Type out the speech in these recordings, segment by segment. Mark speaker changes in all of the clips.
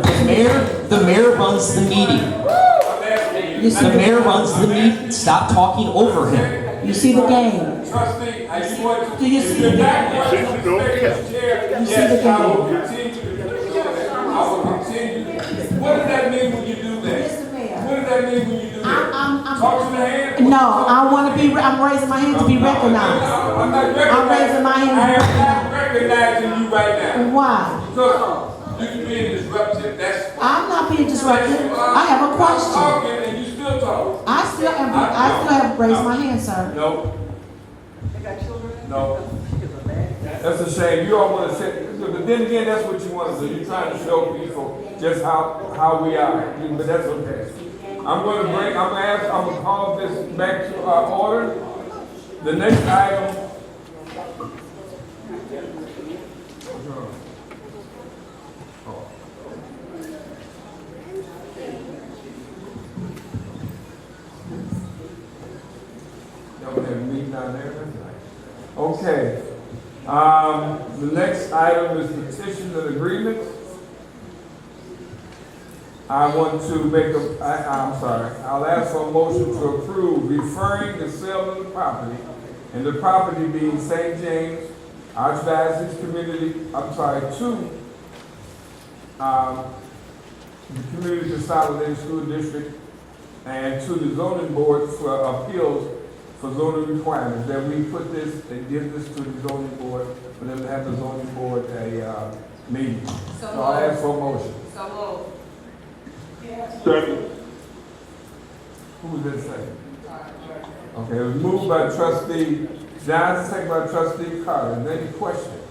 Speaker 1: The mayor, the mayor runs the meeting.
Speaker 2: You see,
Speaker 1: The
Speaker 2: the,
Speaker 1: mayor runs the meeting. Stop talking over him.
Speaker 2: you see the game.
Speaker 3: Trustee, I just want
Speaker 2: Do
Speaker 3: to.
Speaker 2: you
Speaker 3: if
Speaker 2: see
Speaker 3: you're
Speaker 2: the-
Speaker 3: not running
Speaker 4: Don't
Speaker 3: for executive chair,
Speaker 2: You see
Speaker 3: yes,
Speaker 2: the
Speaker 3: I will
Speaker 2: game.
Speaker 3: continue to do that. I will continue. What does that mean when you do that?
Speaker 2: Mr. Mayor.
Speaker 3: What does that mean when you do that?
Speaker 2: I'm- I'm-
Speaker 3: Talk to the hand?
Speaker 2: No, I want to be. I'm raising my hand to be recognized.
Speaker 3: I'm not recognizing.
Speaker 2: raising my hand.
Speaker 3: I am not recognizing you right now.
Speaker 2: Why?
Speaker 3: Because you can be disruptive, that's.
Speaker 2: I'm not being disruptive.
Speaker 3: that's-
Speaker 2: I have a
Speaker 3: I'm
Speaker 2: question.
Speaker 3: talking and you still talk.
Speaker 2: I still am. I still have raised my hand, sir.
Speaker 3: No. No. That's a shame. You all want to say, but then again, that's what you want to do. You're trying to show people just how, how we are, but that's okay. I'm going to bring, I'm going to ask, I'm going to call this back to our order. The next item. Y'all have a meeting down there tonight. Okay, um, the next item is petitions and agreements. I want to make a, I, I'm sorry, I'll ask for a motion to approve referring the sale of the property and the property being St. James Archdiocese Community, I'm sorry, to, um, the Community Consolidated School District and to the zoning board for appeals for zoning requirements, that we put this and give this to the zoning board, for them to have the zoning board a, uh, meeting. So I'll ask for a motion. Who was that second? Okay, it was moved by trustee Johnson, second by trustee Carter. Is there Any questions?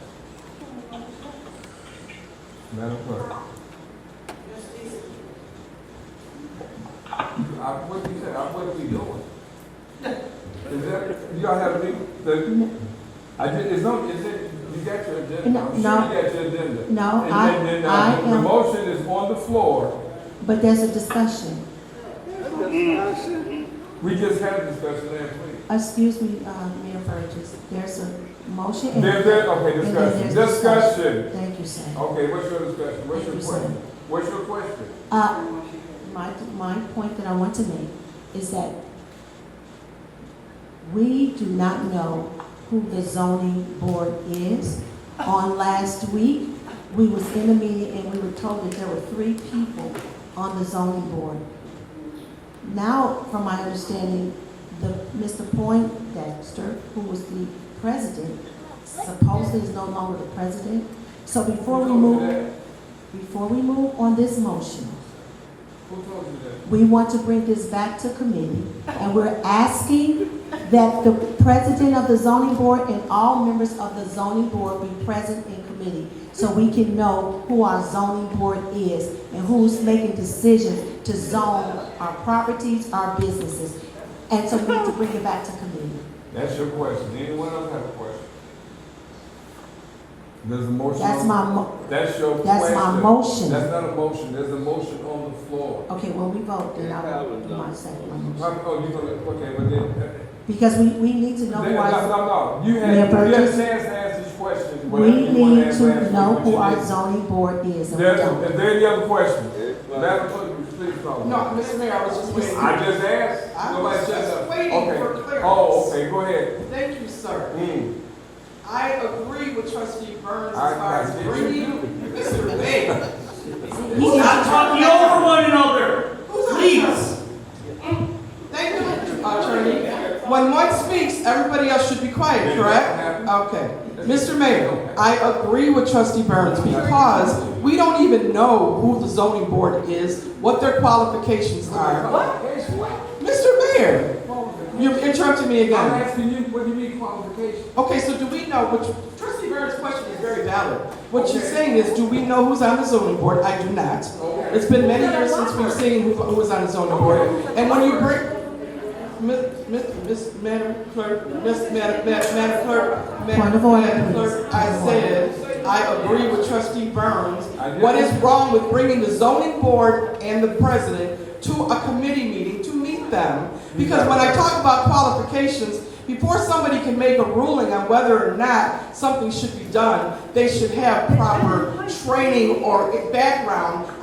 Speaker 3: Madam Clerk. I, Uh, what you say, I, what we doing? Is that, y'all have any, the, I did, it's not, is it, you got your agenda?
Speaker 2: No,
Speaker 3: I'm sure
Speaker 2: no.
Speaker 3: You got your agenda.
Speaker 2: No,
Speaker 3: And
Speaker 2: I-
Speaker 3: then- then, uh,
Speaker 2: I
Speaker 3: The
Speaker 2: am-
Speaker 3: motion is on the floor.
Speaker 2: But there's a discussion.
Speaker 3: We just had a discussion last week.
Speaker 2: Excuse me, uh, Mayor Burgess. There's a motion. and-
Speaker 3: There, there, okay,
Speaker 2: and then
Speaker 3: discussion,
Speaker 2: there's
Speaker 3: discussion.
Speaker 2: Thank you, sir.
Speaker 3: Okay, what's your discussion? What's your question? What's your question?
Speaker 2: Uh, my, my point that I want to make is that we do not know who the zoning board is. On last week, we was in a meeting and we were told that there were three people on the zoning board. Now, from my understanding, the, Mr. Point Dexter, who was the president, supposedly is no longer the president. So before we
Speaker 3: Who told you
Speaker 2: move,
Speaker 3: that?
Speaker 2: before we move on this motion,
Speaker 3: Who told you that?
Speaker 2: we want to bring this back to committee, and we're asking that the president of the zoning board and all members of the zoning board be present in committee, so we can know who our zoning board is and who's making decisions to zone our properties, our businesses. And so we need to bring it back to committee.
Speaker 3: That's your question. Anyone else have a question? There's a motion.
Speaker 2: That's
Speaker 3: on-
Speaker 2: my mo,
Speaker 3: That's your question.
Speaker 2: that's my motion.
Speaker 3: That's not a motion. There's a motion on the floor.
Speaker 2: okay, well, we vote, then I will do my second motion.
Speaker 3: Um, Oh, you gonna, okay, but then. uh,
Speaker 2: Because we, we need to know
Speaker 3: No,
Speaker 2: who our
Speaker 3: no, no, no. You
Speaker 2: Mayor
Speaker 3: had, you had a
Speaker 2: Burgess?
Speaker 3: chance to ask this question.
Speaker 2: We
Speaker 3: whatever you wanna
Speaker 2: need
Speaker 3: ask last
Speaker 2: to
Speaker 3: week,
Speaker 2: know
Speaker 3: but
Speaker 2: who
Speaker 3: you
Speaker 2: our
Speaker 3: didn't.
Speaker 2: zoning board is, and we
Speaker 3: There's,
Speaker 2: don't.
Speaker 3: is there any other questions? Madam Clerk, please call.
Speaker 5: No, Mr. Mayor, I was just waiting.
Speaker 3: I just asked.
Speaker 5: I
Speaker 3: Nobody
Speaker 5: was
Speaker 3: said
Speaker 5: just
Speaker 3: nothing.
Speaker 5: waiting
Speaker 3: Okay.
Speaker 5: for clearance.
Speaker 3: Oh, okay, go ahead.
Speaker 5: Thank you, sir.
Speaker 3: Mm.
Speaker 5: I agree with trustee Burns
Speaker 3: I-
Speaker 5: as far
Speaker 3: I
Speaker 5: as
Speaker 3: did.
Speaker 5: bringing Mr. Mayor.
Speaker 2: He is-
Speaker 5: Stop talking
Speaker 6: over one another.
Speaker 5: Who's
Speaker 6: Please.
Speaker 5: Thank you, attorney. When one speaks, everybody else should be quiet, correct? Okay. Mr. Mayor, I agree with trustee Burns because we don't even know who the zoning board is, what their qualifications are. Mr. Mayor, you've interrupted me
Speaker 3: I'm
Speaker 5: again.
Speaker 3: asking you, what do you mean qualification?
Speaker 5: Okay, so do we know, which, trustee Burns' question is very valid. What you're
Speaker 3: Okay.
Speaker 5: saying is, do we know who's on the zoning board? I do not.
Speaker 3: Okay.
Speaker 5: It's been many years since we've seen who, who was on the zoning board. And when you bring, Miss, Miss, Miss, Madam Clerk, Miss, Madam, Madam Madam Clerk,
Speaker 2: Point of
Speaker 5: Madam,
Speaker 2: order,
Speaker 5: Madam
Speaker 2: please.
Speaker 5: Clerk, I said, I agree with trustee Burns.
Speaker 3: I did.
Speaker 5: What is wrong with bringing the zoning board and the president to a committee meeting to meet them? Because when I talk about qualifications, before somebody can make a ruling on whether or not something should be done, they should have proper training or background